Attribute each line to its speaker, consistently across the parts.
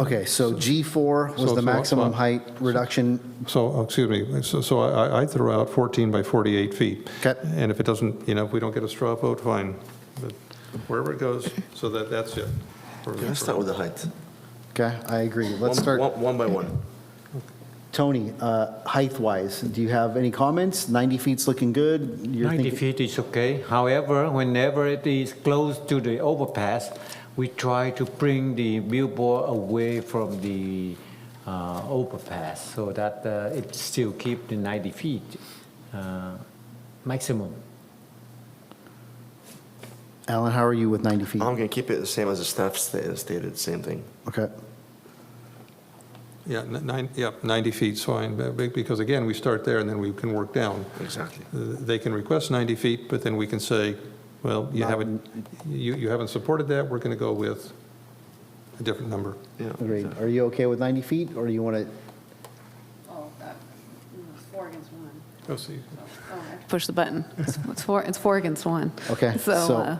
Speaker 1: Okay, so G4 was
Speaker 2: So-
Speaker 1: the
Speaker 2: so-
Speaker 1: maximum height reduction.
Speaker 2: So, oh, excuse me, so- so I I threw out 14 by 48 feet.
Speaker 1: Okay.
Speaker 2: And if it doesn't, you know, if we don't get a straw vote, fine, but wherever it goes, so that, that's it. For-
Speaker 3: Let's
Speaker 2: for-
Speaker 3: start with the height.
Speaker 1: Okay, I agree. Let's
Speaker 3: One-
Speaker 1: start,
Speaker 3: One one by one.
Speaker 1: Tony, uh, height-wise, do you have any comments? 90 feet's looking good? You're
Speaker 4: 90
Speaker 1: thinking-
Speaker 4: feet is okay. However, whenever it is close to the overpass, we try to bring the billboard away from the uh, overpass so that uh, it still keep the 90 feet uh, maximum.
Speaker 1: Alan, how are you with 90 feet?
Speaker 3: I'm going to keep it the same as the staff sta- stated, same thing.
Speaker 1: Okay,
Speaker 2: Yeah, ni- nine, yeah, 90 feet's fine, but be- because again, we start there and then we can work down. Uh,
Speaker 3: Exactly.
Speaker 2: They can request 90 feet, but then we can say, well, you haven't, you you haven't supported that, we're going to go with a different number.
Speaker 3: Yeah.
Speaker 1: agreed. Are you okay with 90 feet, or do you want to,
Speaker 5: Oh, that, mm, it's four against one.
Speaker 2: Go see.
Speaker 5: So, oh, I have to Push the button. It's- It's four, it's four against one.
Speaker 1: Okay,
Speaker 5: So,
Speaker 1: so-
Speaker 5: uh,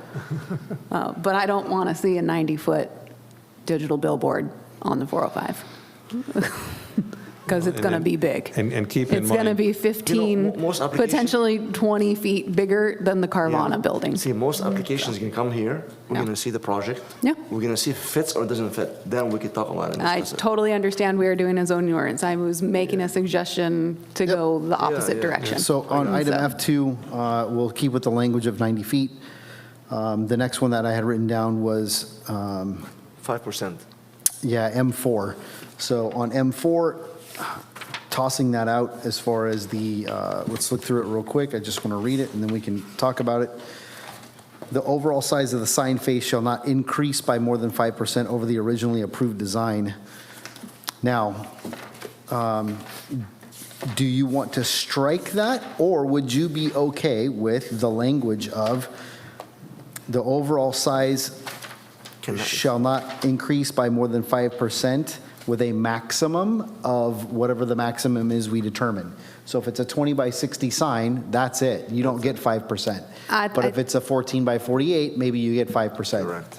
Speaker 5: uh, but I don't want to see a 90-foot digital billboard on the 405. Because it's
Speaker 2: And
Speaker 5: going to
Speaker 2: then-
Speaker 5: be big.
Speaker 2: and- and keep in
Speaker 5: It's going to
Speaker 2: mind-
Speaker 5: be
Speaker 3: You know, mo-
Speaker 5: 15,
Speaker 3: most application-
Speaker 5: potentially 20 feet bigger than the Carvana building.
Speaker 3: See, most applications can come here, we're
Speaker 5: Yeah.
Speaker 3: going to see the project.
Speaker 5: Yeah.
Speaker 3: We're going to see if it fits or doesn't fit, then we can talk about it. and
Speaker 5: I
Speaker 3: discuss it.
Speaker 5: totally understand we are doing a zoning ordinance. I was making a suggestion to go the opposite
Speaker 3: yeah.
Speaker 5: direction.
Speaker 1: So on item
Speaker 5: So-
Speaker 1: F2, uh, we'll keep with the language of 90 feet. Um, The next one that I had written down was, um,
Speaker 3: 5%.
Speaker 1: yeah, M4. So on M4, tossing that out as far as the, uh, let's look through it real quick, I just want to read it, and then we can talk about it. The overall size of the sign face shall not increase by more than 5% over the originally approved design. Now, um, do you want to strike that, or would you be okay with the language of the overall size
Speaker 3: Cannot-
Speaker 1: shall not increase by more than 5% with a maximum of whatever the maximum is we determine? So if it's a 20 by 60 sign, that's it. You don't get 5%.
Speaker 5: Uh, I-
Speaker 1: But if
Speaker 5: I-
Speaker 1: it's a 14 by 48, maybe you get 5%.
Speaker 3: Correct.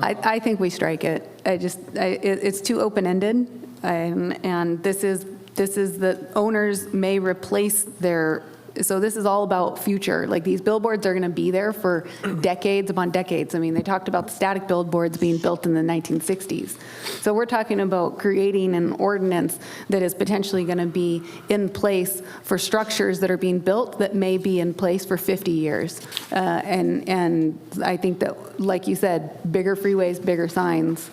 Speaker 5: I, I think we strike it. I just, I, it, it's too open-ended, um, and this is, this is the owners may replace their, so this is all about future. Like, these billboards are gonna be there for decades upon decades. I mean, they talked about static billboards being built in the 1960s. So we're talking about creating an ordinance that is potentially gonna be in place for structures that are being built that may be in place for 50 years. Uh, And, and I think that, like you said, bigger freeways, bigger signs.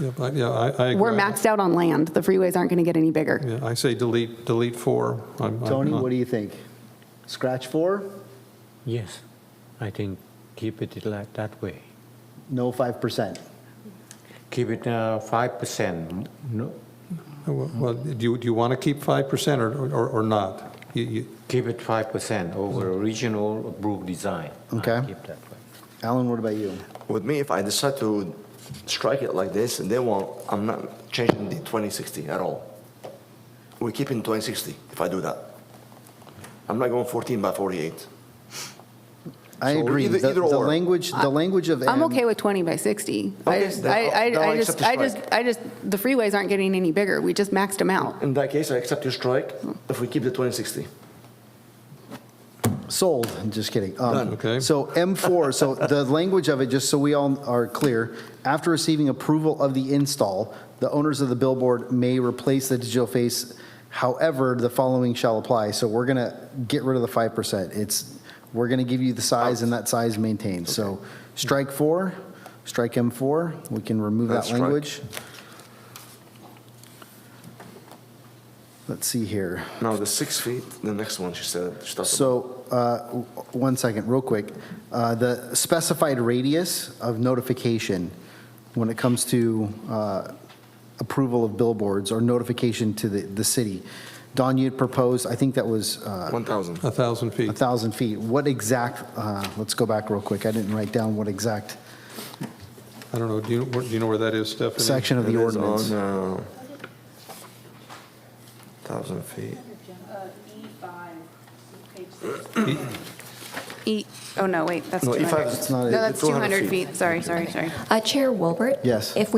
Speaker 2: Yeah, I- yeah, I I agree.
Speaker 5: We're maxed out on land. The freeways aren't going to get any bigger.
Speaker 2: Yeah, I say delete, delete four. I'm- I'm
Speaker 1: Tony,
Speaker 3: Uh-huh.
Speaker 2: not-
Speaker 1: what do you think? Scratch four,
Speaker 4: Yes, I think keep it like that way.
Speaker 1: no 5%.
Speaker 4: Keep it uh, 5%. No,
Speaker 2: Well, well, do you, do you want to keep 5% or, or- or not? You- you-
Speaker 4: keep it 5% over original approved design. I
Speaker 1: Okay.
Speaker 4: Keep that way.
Speaker 1: Alan, what about you?
Speaker 3: With me, if I decide to strike it like this, and they won't, I'm not changing the 2060 at all. We're keeping 2060 if I do that. I'm not going 14 by 48.
Speaker 1: I
Speaker 3: So
Speaker 1: agree.
Speaker 3: either-
Speaker 1: The
Speaker 3: either
Speaker 1: the
Speaker 3: or.
Speaker 1: language, the language of.
Speaker 5: I'm
Speaker 1: M-
Speaker 5: okay with 20 by 60. I
Speaker 3: Okay,
Speaker 5: just,
Speaker 3: then
Speaker 5: I,
Speaker 3: I'll- then
Speaker 5: I
Speaker 3: I'll
Speaker 5: I just,
Speaker 3: accept
Speaker 5: I
Speaker 3: the
Speaker 5: just,
Speaker 3: strike.
Speaker 5: I just, the freeways aren't getting any bigger. We just maxed them out.
Speaker 3: In that case, I accept your strike if we keep the 2060.
Speaker 1: Sold, I'm just kidding. Um,
Speaker 2: Done. Okay.
Speaker 1: So M4, so the language of it, just so we all are clear, after receiving approval of the install, the owners of the billboard may replace the digital face, however, the following shall apply. So we're going to get rid of the 5%. It's, we're going to give you the size and that size maintained. So strike four, strike M4, we can remove
Speaker 3: That's
Speaker 1: that
Speaker 3: strike.
Speaker 1: language. Let's see here.
Speaker 3: Now, the six feet, the next one, she said, she talked about.
Speaker 1: So, uh, w- one second, real quick. Uh, The specified radius of notification when it comes to uh, approval of billboards or notification to the, the city. Don, you had proposed, I think that was uh,
Speaker 3: 1,000.
Speaker 2: A 1,000
Speaker 1: a
Speaker 2: feet.
Speaker 1: 1,000 feet. What exact, uh, let's go back real quick, I didn't write down what exact
Speaker 2: I don't know, do you, where- do you know where that is, Stephanie?
Speaker 1: section of the
Speaker 3: It is
Speaker 1: ordinance.
Speaker 3: on, uh, 1,000 feet.
Speaker 5: E, oh, no, wait, that's
Speaker 3: No, E five
Speaker 5: 200.
Speaker 3: is-
Speaker 1: not-
Speaker 5: No, that's
Speaker 3: 200
Speaker 5: 200 feet. Sorry, sorry, sorry.
Speaker 6: Uh, Chair Wilbert?
Speaker 1: Yes.
Speaker 6: If